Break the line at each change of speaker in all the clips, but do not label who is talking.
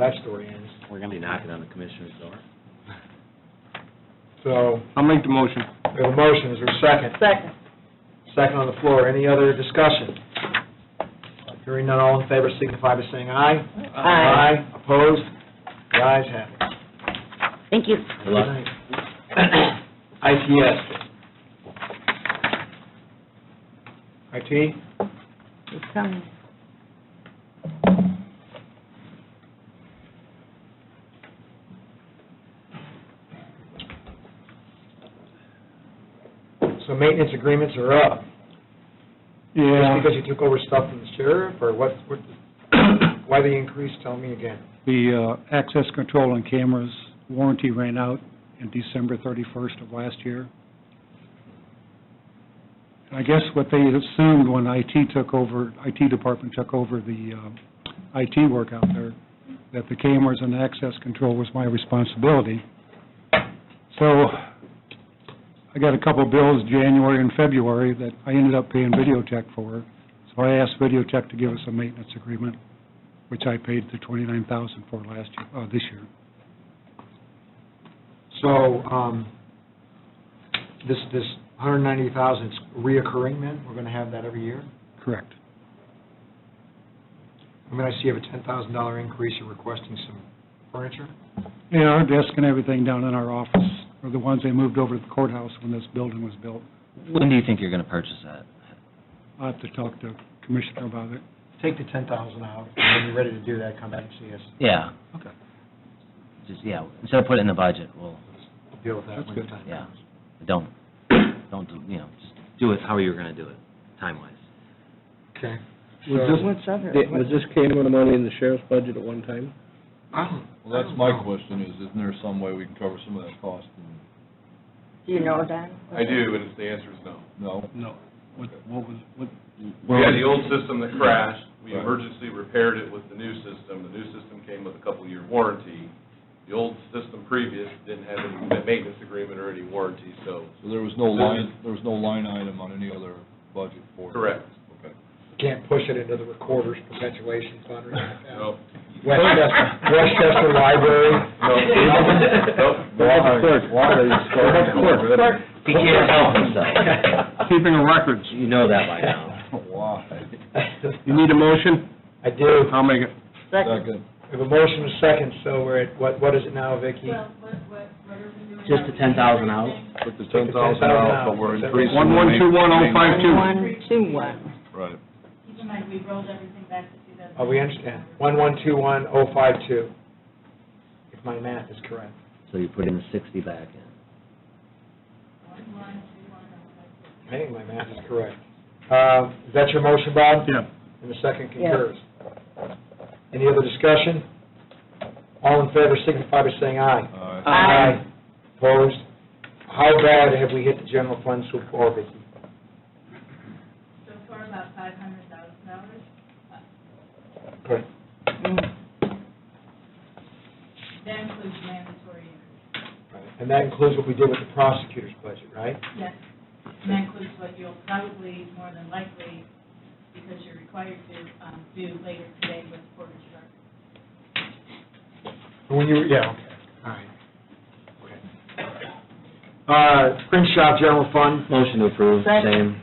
that story ends.
We're gonna be knocking on the commissioner's door.
So,
I'll make the motion.
we have a motion, is there a second?
Second.
Second on the floor, any other discussion? Hearing none, all in favor signify by saying aye.
Aye.
Aye, opposed, the ayes have it.
Thank you.
Good luck.
ITS. IT,
It's coming.
so maintenance agreements are up. Just because you took over stuff from the sheriff, or what, what- why the increase, tell me again.
The uh, access control on cameras warranty ran out in December 31st of last year. And I guess what they assumed when IT took over, IT department took over the uh, IT work out there, that the cameras and access control was my responsibility. So I got a couple bills, January and February, that I ended up paying Videotech for. So I asked Videotech to give us a maintenance agreement which I paid the twenty-nine thousand for last year, uh, this year.
So, um, this, this 190,000 is reoccurring then? We're going to have that every year?
Correct.
I mean, I see you have a $10,000 increase, you're requesting some furniture?
Yeah, our desk and everything down in our office are the ones they moved over to the courthouse when this building was built.
When do you think you're gonna purchase that?
I'll have to talk to Commissioner about it.
Take the 10,000 out, and when you're ready to do that, come back and see us,
Yeah.
Okay.
Just, yeah, instead of putting it in the budget, we'll,
We'll deal with that
That's
when the
good.
time
Yeah.
comes.
don't, don't, do- you know, just do it how you were gonna do it, time-wise.
Okay.
Was
So,
What's other?
this, was this camera money in the sheriff's budget at one time?
I don't-
Well, that's my question, is isn't there some way we can cover some of that cost? And-
Do you know that?
I do, and the answer is no.
No?
No. What, what was, what?
We had the old system that crashed, we
Right.
emergency repaired it with the new system, the new system came with a couple-year warranty. The old system previous didn't have any maintenance agreement or any warranty, so,
So there was no line, there was no line item on any other budget for it?
correct.
Okay.
Can't push it into the recorder's perpetuation fund or anything like that.
No.
Westchester, Westchester Library.
No.
Water- water is-
He can't help himself.
Keeping a records.
You know that by now.
Why?
You need a motion?
I do.
I'll make it.
Second.
Second.
We have a motion and a second, so we're at, what, what is it now, Vicki?
Just the ten thousand out?
Put the
the
ten thousand out, but we're increasing. the
One, one, two, one, oh,
main-
five, two.
One, two, one.
Right.
Keep in mind, we rolled everything back to 2000.
Oh, we understand. One, one, two, one, oh, five, two. If my math is correct.
So you put in sixty back in.
One, one, two, one, oh, five.
I think my math is correct. Uh, is that your motion, Bob?
Yeah.
And the second concurs. Any other discussion? All in favor signify by saying aye.
All right.
Aye.
Opposed? How bad have we hit the general fund so far, Vicki?
So for about five hundred thousand dollars,
Good.
Mm.
that includes mandatory interest.
And that includes what we did with the prosecutor's budget, right?
Yes. And that includes what you'll probably, more than likely, because you're required to, um, do later today with Porter Struck.
When you, yeah, okay, all right. Okay. Uh, print shop general fund,
Motion to approve,
Second.
same.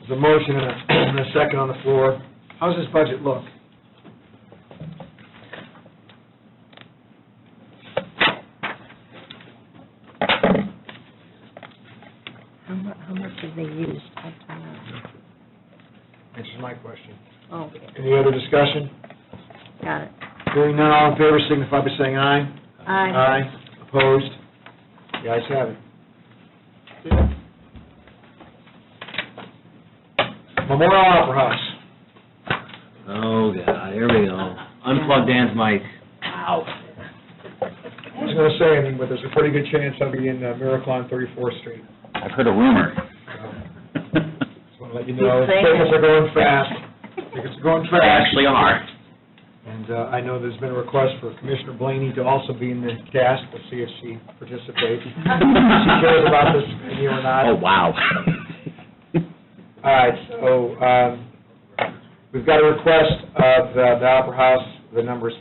there's a motion and a, and a second on the floor. How's this budget look?
How mu, how much have they used? I don't know.
This is my question.
Oh,
Any other discussion?
got it.
Hearing none, all in favor signify by saying aye.
Aye.
Opposed? The ayes have it. Memorial Opera House.
Oh, God, here we go. Unplug Dan's mic. Ow.
I was gonna say, I mean, but there's a pretty good chance I'll be in uh, Miracle on 34th Street.
I've heard a rumor.
Just wanna let you know,
Keep saying
tickets
it.
are going fast. Tickets are going
They
fast.
actually are.
And uh, I know there's been a request for Commissioner Blaney to also be in the cast, we'll see if she participates. She cares about this venue or
Oh,
not.
wow.
All right, so, um, we've got a request of uh, the Opera House, the number's